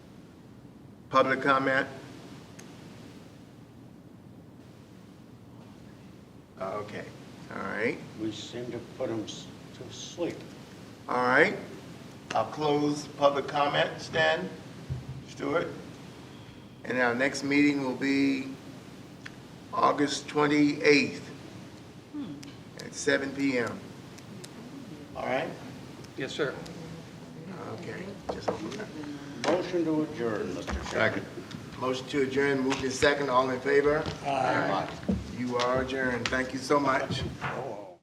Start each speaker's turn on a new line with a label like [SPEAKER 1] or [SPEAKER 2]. [SPEAKER 1] Public comment? Okay, all right,
[SPEAKER 2] We seem to put them to sleep.
[SPEAKER 1] all right. I'll close public comments then, Stuart. And our next meeting will be August 28th at seven PM. All right?
[SPEAKER 3] Yes, sir.
[SPEAKER 1] Okay, just hold that.
[SPEAKER 2] Motion to adjourn, Mr. Chairman.
[SPEAKER 1] Motion to adjourn, moved in second, all in favor? Aye. You are adjourned, thank you so much.
[SPEAKER 2] Second.